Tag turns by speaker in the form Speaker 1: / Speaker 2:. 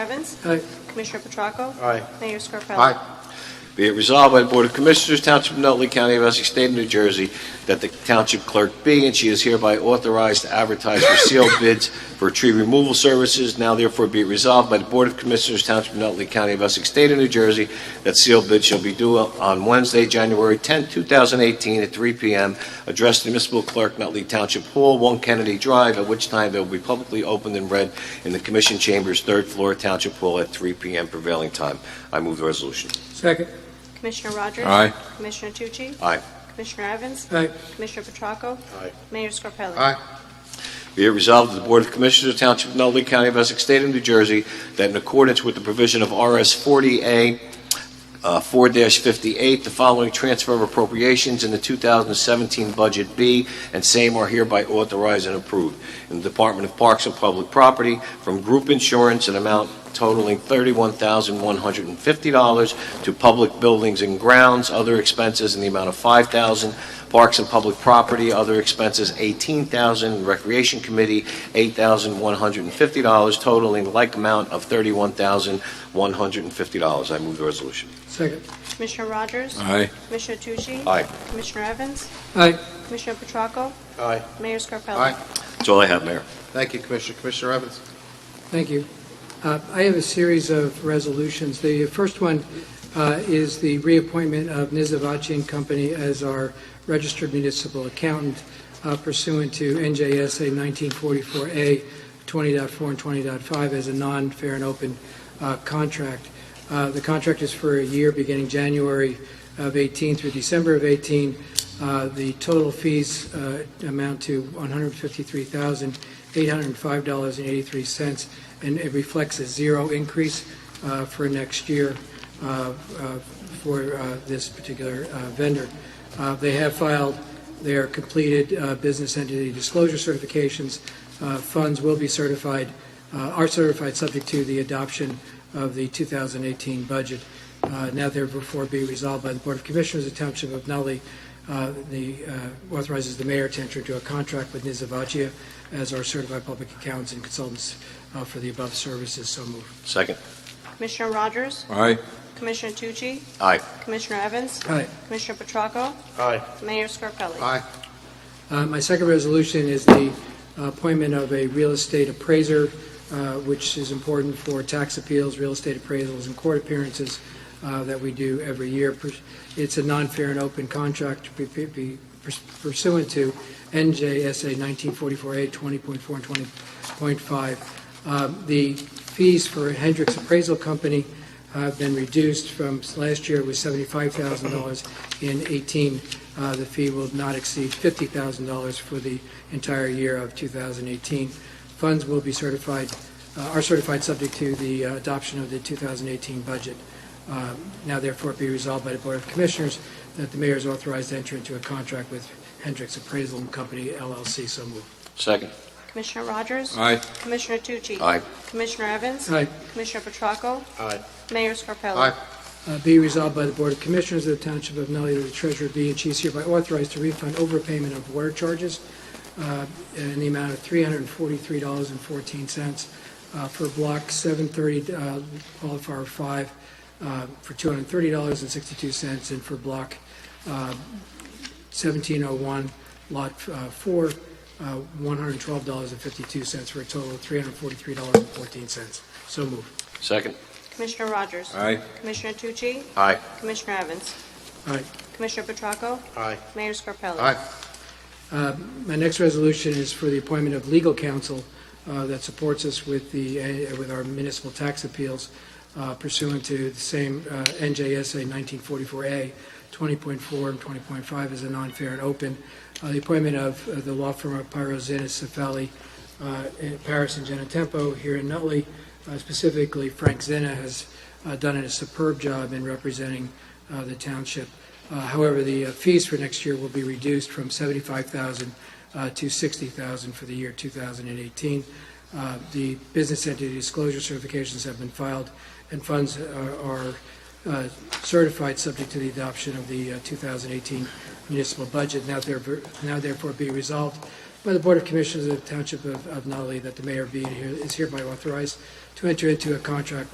Speaker 1: Evans?
Speaker 2: Aye.
Speaker 1: Commissioner Petracco?
Speaker 3: Aye.
Speaker 1: Mayor Scarpelli?
Speaker 3: Aye. Be it resolved by the Board of Commissioners, Township of Nutley County of Essex, State of New Jersey, that the Township Clerk be and she is hereby authorized to advertise for sealed bids for tree removal services. Now therefore be it resolved by the Board of Commissioners, Township of Nutley County of Essex, State of New Jersey, that sealed bids shall be due on Wednesday, January 10, 2018, at 3 p.m., addressed to Municipal Clerk, Nutley Township Hall, 1 Kennedy Drive, at which time they will be publicly opened and read in the Commission Chambers, 3rd floor, Township Hall, at 3 p.m. prevailing time. I move the resolution.
Speaker 2: Second.
Speaker 1: Commissioner Rogers?
Speaker 4: Aye.
Speaker 1: Commissioner Tucci?
Speaker 3: Aye.
Speaker 1: Commissioner Evans?
Speaker 2: Aye.
Speaker 1: Commissioner Petracco?
Speaker 3: Aye.
Speaker 1: Mayor Scarpelli?
Speaker 4: Aye.
Speaker 3: Be it resolved that the Board of Commissioners of Township of Nutley County of Essex State of New Jersey that in accordance with the provision of RS 40A uh, 4-58, the following transfer of appropriations in the 2017 Budget B and same are hereby authorized and approved in the Department of Parks and Public Property from group insurance an amount totaling $31,150 to public buildings and grounds, other expenses in the amount of $5,000, Parks and Public Property, other expenses, $18,000, Recreation Committee, $8,150, totaling like amount of $31,150. I move the resolution.
Speaker 2: Second.
Speaker 1: Commissioner Rogers?
Speaker 4: Aye.
Speaker 1: Commissioner Tucci?
Speaker 3: Aye.
Speaker 1: Commissioner Evans?
Speaker 2: Aye.
Speaker 1: Commissioner Petracco?
Speaker 3: Aye.
Speaker 1: Mayor Scarpelli?
Speaker 4: Aye.
Speaker 3: That's all I have, Mayor.
Speaker 4: Thank you, Commissioner. Commissioner Evans?
Speaker 2: Thank you. Uh, I have a series of resolutions. The first one uh, is the reappointment of Nizavachi and Company as our registered municipal accountant uh, pursuant to NJSA 1944A 20.4 and 20.5 as a non-fair and open uh, contract. Uh, The contract is for a year beginning January of 18 through December of 18. Uh, The total fees uh, amount to 153000 $805.83, and it reflects a zero increase uh, for next year uh, uh, for uh, this particular uh, vendor. Uh, They have filed their completed uh, business entity disclosure certifications. Uh, Funds will be certified, uh, are certified subject to the adoption of the 2018 budget. Uh, Now therefore be resolved by the Board of Commissioners of the Township of Nutley, uh, the, uh, authorizes the mayor to enter into a contract with Nizavachia as our certified public accountants and consultants uh, for the above services, so moved.
Speaker 3: Second.
Speaker 1: Commissioner Rogers?
Speaker 4: Aye.
Speaker 1: Commissioner Tucci?
Speaker 3: Aye.
Speaker 1: Commissioner Evans?
Speaker 2: Aye.
Speaker 1: Commissioner Petracco?
Speaker 3: Aye.
Speaker 1: Mayor Scarpelli?
Speaker 4: Aye.
Speaker 2: Uh, My second resolution is the appointment of a real estate appraiser, uh, which is important for tax appeals, real estate appraisals, and court appearances uh, that we do every year. Pers- It's a non-fair and open contract to be- be pursuant to NJSA 1944A 20.4 and 20.5. Um, The fees for Hendricks Appraisal Company have been reduced from, last year it was $75,000 in 18 uh, The fee will not exceed $50,000 for the entire year of 2018. Funds will be certified, uh, are certified subject to the uh, adoption of the 2018 budget. Uh, Now therefore be resolved by the Board of Commissioners that the mayor is authorized to enter into a contract with Hendricks Appraisal and Company LLC. So moved.
Speaker 3: Second.
Speaker 1: Commissioner Rogers?
Speaker 4: Aye.
Speaker 1: Commissioner Tucci?
Speaker 3: Aye.
Speaker 1: Commissioner Evans?
Speaker 2: Aye.
Speaker 1: Commissioner Petracco?
Speaker 3: Aye.
Speaker 1: Mayor Scarpelli?
Speaker 4: Aye.
Speaker 2: Uh, Be resolved by the Board of Commissioners of the Township of Nutley that the treasurer be and she is hereby authorized to refund overpayment of water charges uh, in the amount of $343.14 uh, for Block 730, uh, Wildfire 5, uh, for $230.62, and for Block uh, 1701, Lot uh, 4, uh, $112.52, for a total of $343.14. So moved.
Speaker 3: Second.
Speaker 1: Commissioner Rogers?
Speaker 4: Aye.
Speaker 1: Commissioner Tucci?
Speaker 3: Aye.
Speaker 1: Commissioner Evans?
Speaker 2: Aye.
Speaker 1: Commissioner Petracco?
Speaker 3: Aye.
Speaker 1: Mayor Scarpelli?
Speaker 4: Aye.
Speaker 2: Uh, My next resolution is for the appointment of legal counsel uh, that supports us with the, uh, with our municipal tax appeals uh, pursuant to the same uh, NJSA 1944A, 20.4 and 20.5 is a non-fair and open. Uh, The appointment of uh, the law firm of Pyro Zinnis Cefali, uh, in Paris and Genetempo here in Nutley, Uh, specifically Frank Zena has uh, done a superb job in representing uh, the township. Uh, However, the uh, fees for next year will be reduced from 75000 uh, to 60000 for the year 2018. Uh, The business entity disclosure certifications have been filed, and funds are- are uh, certified subject to the adoption of the uh, 2018 municipal budget. Now therefore now therefore be resolved by the Board of Commissioners of the Township of of Nutley that the mayor be and here- is hereby authorized to enter into a contract